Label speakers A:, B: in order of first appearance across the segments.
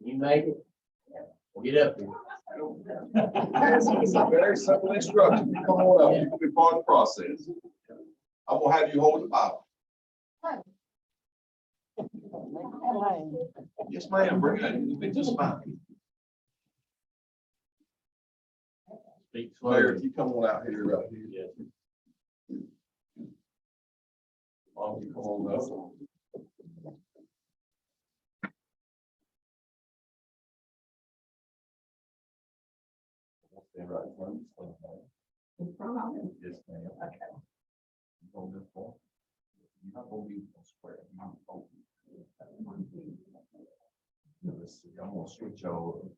A: You made it. Well, get up here.
B: It's a very simple instruction. You Come on up. You can be part of the process. I will have you hold the Bible. Yes, ma'am. Bring it in. You can just fine.
A: Speak
B: Mayor, if
A: slowly.
B: you come on out here, right here.
A: Yes.
B: Mom, you come on up. Stay right in front of me. Yes, ma'am. Okay. You hold this for? You're not gonna be able to swear. You're not gonna be. Now, let's see, I'm gonna switch over.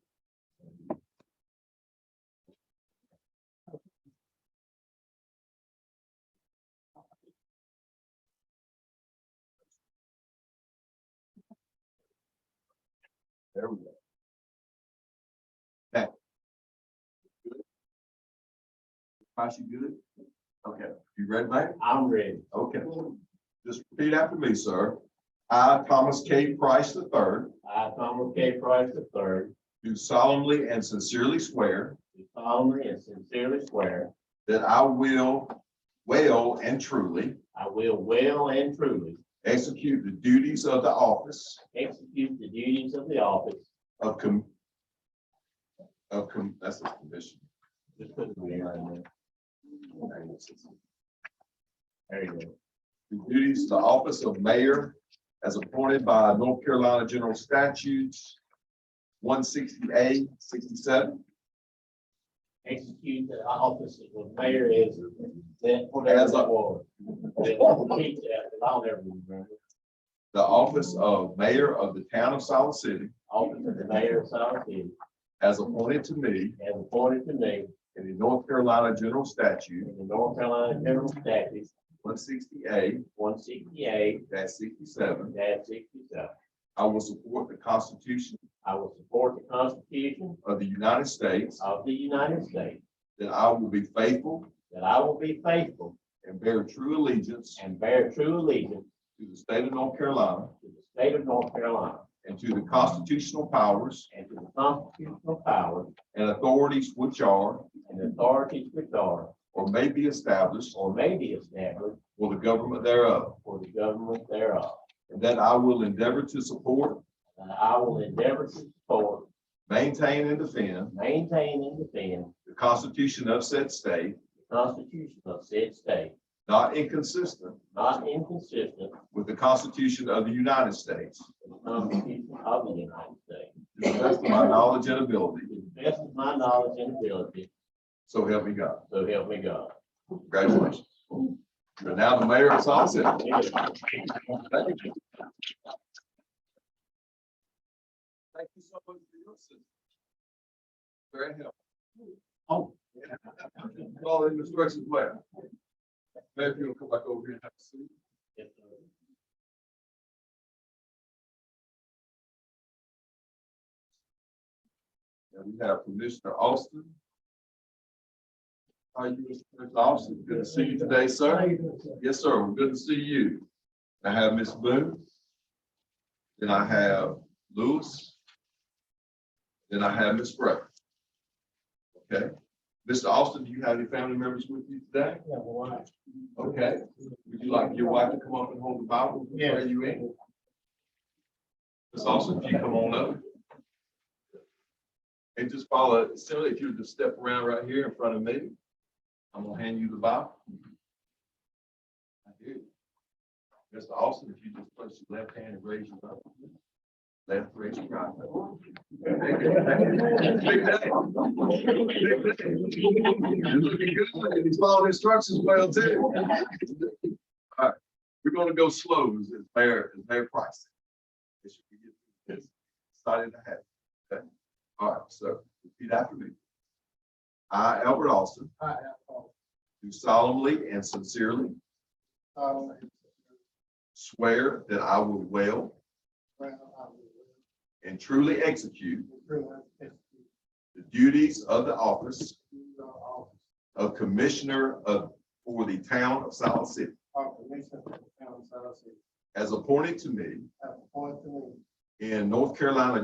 B: There we go. Now. Good? Josh, you good? Okay, you ready, mate?
A: I'm ready.
B: Okay. Just repeat after me, sir. I, Thomas K. Price III,
A: I, Thomas K. Price III,
B: do solemnly and sincerely swear
A: do solemnly and sincerely swear
B: that I will well and truly
A: I will well and truly
B: execute the duties of the office
A: execute the duties of the office.
B: of com- of com- that's the commission.
A: Just put the mayor in there. There you go.
B: the duties of the office of mayor as appointed by North Carolina General Statutes one sixty-eight, sixty-seven,
A: Execute the office of the mayor is that whatever
B: As
A: that
B: a-
A: was. That- repeat that, but I'll never remember.
B: the office of mayor of the town of Silver City
A: Office of the mayor of South City
B: as appointed to me
A: as appointed to me
B: in the North Carolina General Statute
A: in the North Carolina General Statutes
B: one sixty-eight
A: one sixty-eight
B: sixty-seven.
A: sixty-seven.
B: I will support the Constitution
A: I will support the Constitution
B: of the United States,
A: of the United States,
B: that I will be faithful
A: that I will be faithful
B: and bear true allegiance
A: and bear true allegiance
B: to the state of North Carolina
A: to the state of North Carolina
B: and to the constitutional powers
A: and to the constitutional powers
B: and authorities which are
A: and authorities which are
B: or may be established
A: or may be established
B: for the government thereof,
A: for the government thereof.
B: and that I will endeavor to support,
A: And I will endeavor to support,
B: maintain, and defend
A: maintain, and defend
B: the Constitution of said state,
A: the Constitution of said state,
B: not inconsistent
A: not inconsistent
B: with the Constitution of the United States,
A: with the Constitution of the United States,
B: to the best of my knowledge and ability,
A: to the best of my knowledge and ability,
B: so help me God.
A: so help me God.
B: Congratulations. You're now the mayor of Salt City. Thank you Thank you so much for your assistance. Very helpful.
A: Oh.
B: All in instructions well. Mayor, if you'll come back over here and have a seat.
A: Yes, sir.
B: And we have Commissioner Austin. How are you, Mr. Commissioner Austin? Good to see you today, sir. Yes, sir. Well, Good to see you. I have Miss Boone. Then I have Lewis. Then I have Miss Gray. Okay. Mr. Austin, do you have any family members with you today? Okay. Would you like your wife to come up and hold the Bible?
A: Yes.
B: Are you in? Miss Austin, if you come on up. And just follow, Similar, if you would just step around right here in front of me, I'm gonna hand you the Bible. I do. Mr. Austin, if you just place your left hand and raise your left. Left, raise your right. Big day. Big day. You're looking good. He's following instructions well too. All right, we're gonna go slow as as Mayor, as Mayor Price. It should be good. It's Excited to have. you. Okay. All right, so repeat after me. I, Albert Austin,
C: I have
B: do solemnly and sincerely
C: solemnly uh,
B: swear that I will well
C: swear I will
B: and truly execute
C: freely execute
B: the duties of the office
C: the office
B: of Commissioner of, for the town of South City
C: of Commissioner of the Town of South City
B: as appointed to me
C: as appointed to me
B: in North Carolina